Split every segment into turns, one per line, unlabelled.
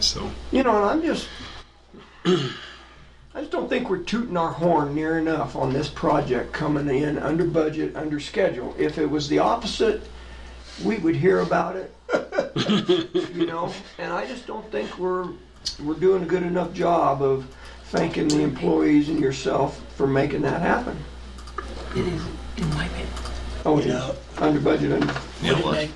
So
You know, and I'm just, I just don't think we're tooting our horn near enough on this project coming in under budget, under schedule. If it was the opposite, we would hear about it. you know, and I just don't think we're we're doing a good enough job of thanking the employees and yourself for making that happen.
It is, in my opinion.
Oh,
You
yeah,
know,
under budget, under,
yeah, well,
Nick,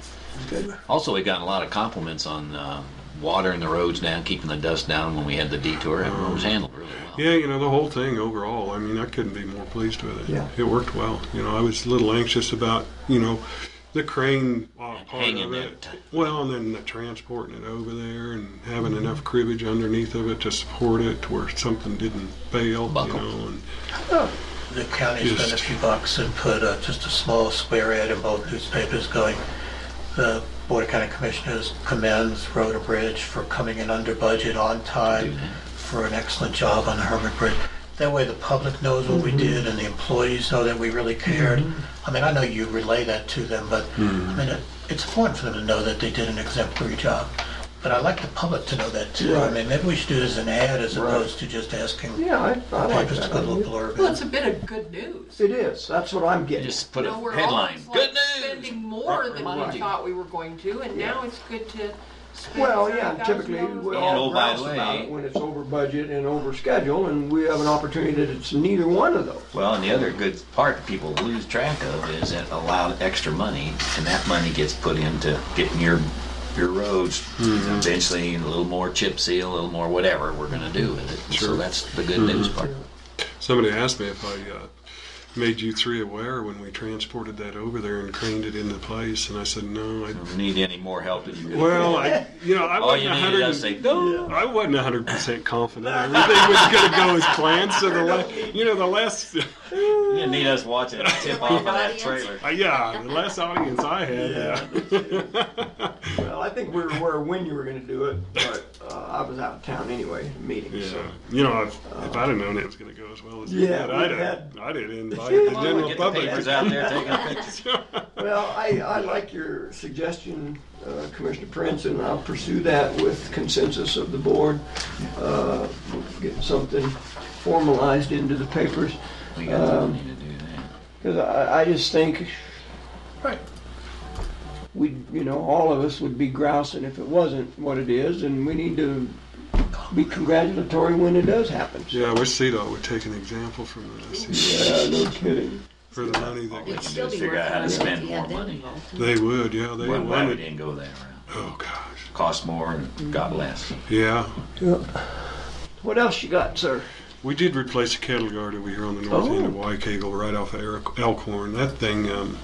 good.
Also, we got a lot of compliments on uh, watering the roads down, keeping the dust down when we had the detour. Everyone was handled really well.
yeah, you know the whole thing overall. I mean, I couldn't be more pleased with it.
Yeah.
it worked well. You know, I was a little anxious about you know the crane uh, part
Hanging
of
that
it.
t-
Well, and then the transporting it over there and having enough cribbage underneath of it to support it to where something didn't fail.
Buckle.
You know, and
The county spent a
Just-
few bucks and put uh, just a small square ad in both newspapers going, the Board of County Commissioners commends Road and Bridge for coming in under budget, on time, for an excellent job on the Hermit Bridge. That way the public knows what we did and the employees know that we really cared. I mean, I know you relay that to them, but I mean, it- it's important for them to know that they did an exemplary job. But I'd like the public to know that too. I
Right.
mean, maybe we should do it as an ad as
Right.
opposed to just asking
yeah, I, I like
papers to
that.
put a little
idea.
blurb in.
Well, it's a bit of good news.
It is. That's what I'm
You
getting.
just put
You know,
a
we're
headline.
always, like,
Good news.
Spending more than
Right.
we thought we were going to, and now it's good to spend.
Well, yeah, and
$30,000
typically we
more.
And
all
oh, by
grouse
the
about
way-
it when it's over budget and over schedule, and we have an opportunity that it's neither one of those.
Well, and the other good part people lose track of is it allowed extra money, and that money gets put into getting your your roads
Mm-hmm.
eventually a little more chip seal, a little more whatever we're going to do with it. So
Sure. Mm-hmm.
that's the good news part.
Somebody asked me if I uh, made you three aware when we transported that over there and craned it into place, and I said no. I,
Don't need any more help than you do.
well, I, you know, I
All
wasn't
you
a
needed
hundred.
us to say,
no, I wasn't hundred percent confident everything was going to go as planned. So the last, you know, the last, uh,
you didn't need us watching it tip off of that trailer.
yeah, the last audience I had. Yeah.
Well, I think we were aware when you were gonna do it, but uh, I was out of town anyway, in meetings, so.
Yeah. You know, if, if I'd have known it was going to go as well as it
Yeah,
did, I'd
we
have, I'd have invited the
Well,
We'll
general
get the papers
public.
out there taking pictures.
Well, I, I like your suggestion, uh, Commissioner Prince, and I'll pursue that with consensus of the board. Uh, Get something formalized into the papers,
We got the money to do that.
because I, I just think
Right.
we, you know, all of us would be grousing if it wasn't what it is, and we need to be congratulatory when it does happen.
Yeah, I wish CDOT would take an example from this
Yeah, Uh, no kidding.
for the money that
We
gets.
can
Still
just
be
figure out
working on it
how to
if
spend
you
more
had them
money.
involved.
They would, yeah, they
Well, glad we
wanted.
didn't go that route.
Oh gosh,
Cost more and got less.
yeah.
What else you got, sir?
We did replace a cattle guard over here on the north end of
Oh.
Waikegel, right off of Eric- Elkhorn. That thing um,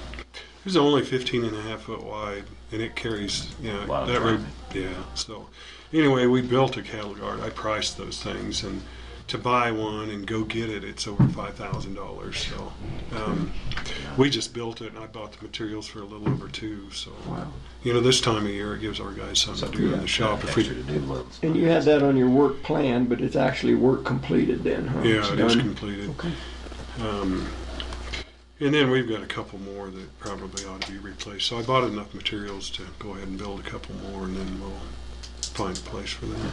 is only 15 and a half foot wide, and it carries, you know,
Lot of
that road. Yeah. So, anyway, we built a cattle guard. I priced those things, and to buy one and go get it, it's over five thousand dollars. So, um, we just built it, and I bought the materials for a little over two. So, you know, this time of year, it gives our guys something to do in the shop. If
Extra
we,
to do loads.
And you had that on your work plan, but it's actually work completed then, huh? It's
Yeah, it is
done?
completed. Um, and then we've got a couple more that probably ought to be replaced. So I bought enough materials to go ahead and build a couple more, and then we'll find a place for them.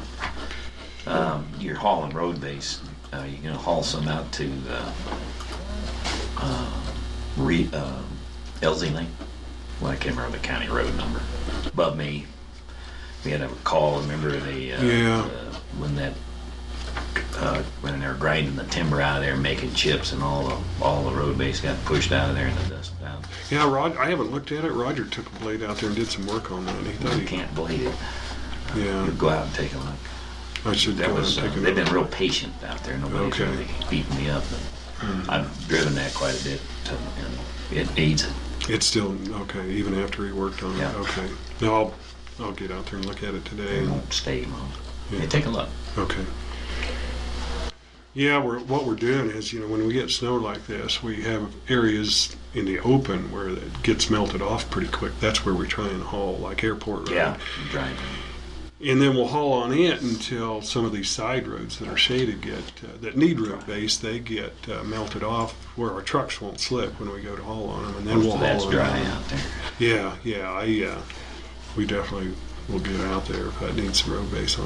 Um, you're hauling road base. Uh, you're gonna haul some out to uh, uh, re, uh, Elsie Lane. Well, I can't remember the county road number. Above me, we had a call. Remember the uh,
Yeah.
uh, when that uh, when they were grinding the timber out of there, making chips, and all the all the road base got pushed out of there in the dust. Down.
Yeah, Rod, I haven't looked at it. Roger took a blade out there and did some work on that. and He thought
You
he,
can't believe it.
yeah,
Go out and take a look.
I should
That
go and
was, uh,
take a
they've been
look.
real patient out there. Nobody's
Okay.
really beating me up. And I've driven that quite a bit, so, and it needs it.
It's still okay, even after he worked on it.
Yeah.
Okay, now I'll I'll get out there and look at it today.
It
and-
won't stay long.
Yeah.
Hey, take a look.
Okay. Yeah, we're, what we're doing is, you know, when we get snow like this, we have areas in the open where it gets melted off pretty quick. That's where we try and haul, like airport road.
Yeah, driving.
And then we'll haul on it until some of these side roads that are shaded get, uh, that need road base, they get uh, melted off where our trucks won't slip when we go to haul on them. And then
Most
we'll
of that's
haul on
dry
them.
out there.
Yeah, yeah, I, uh, we definitely will get out there if I need some road base on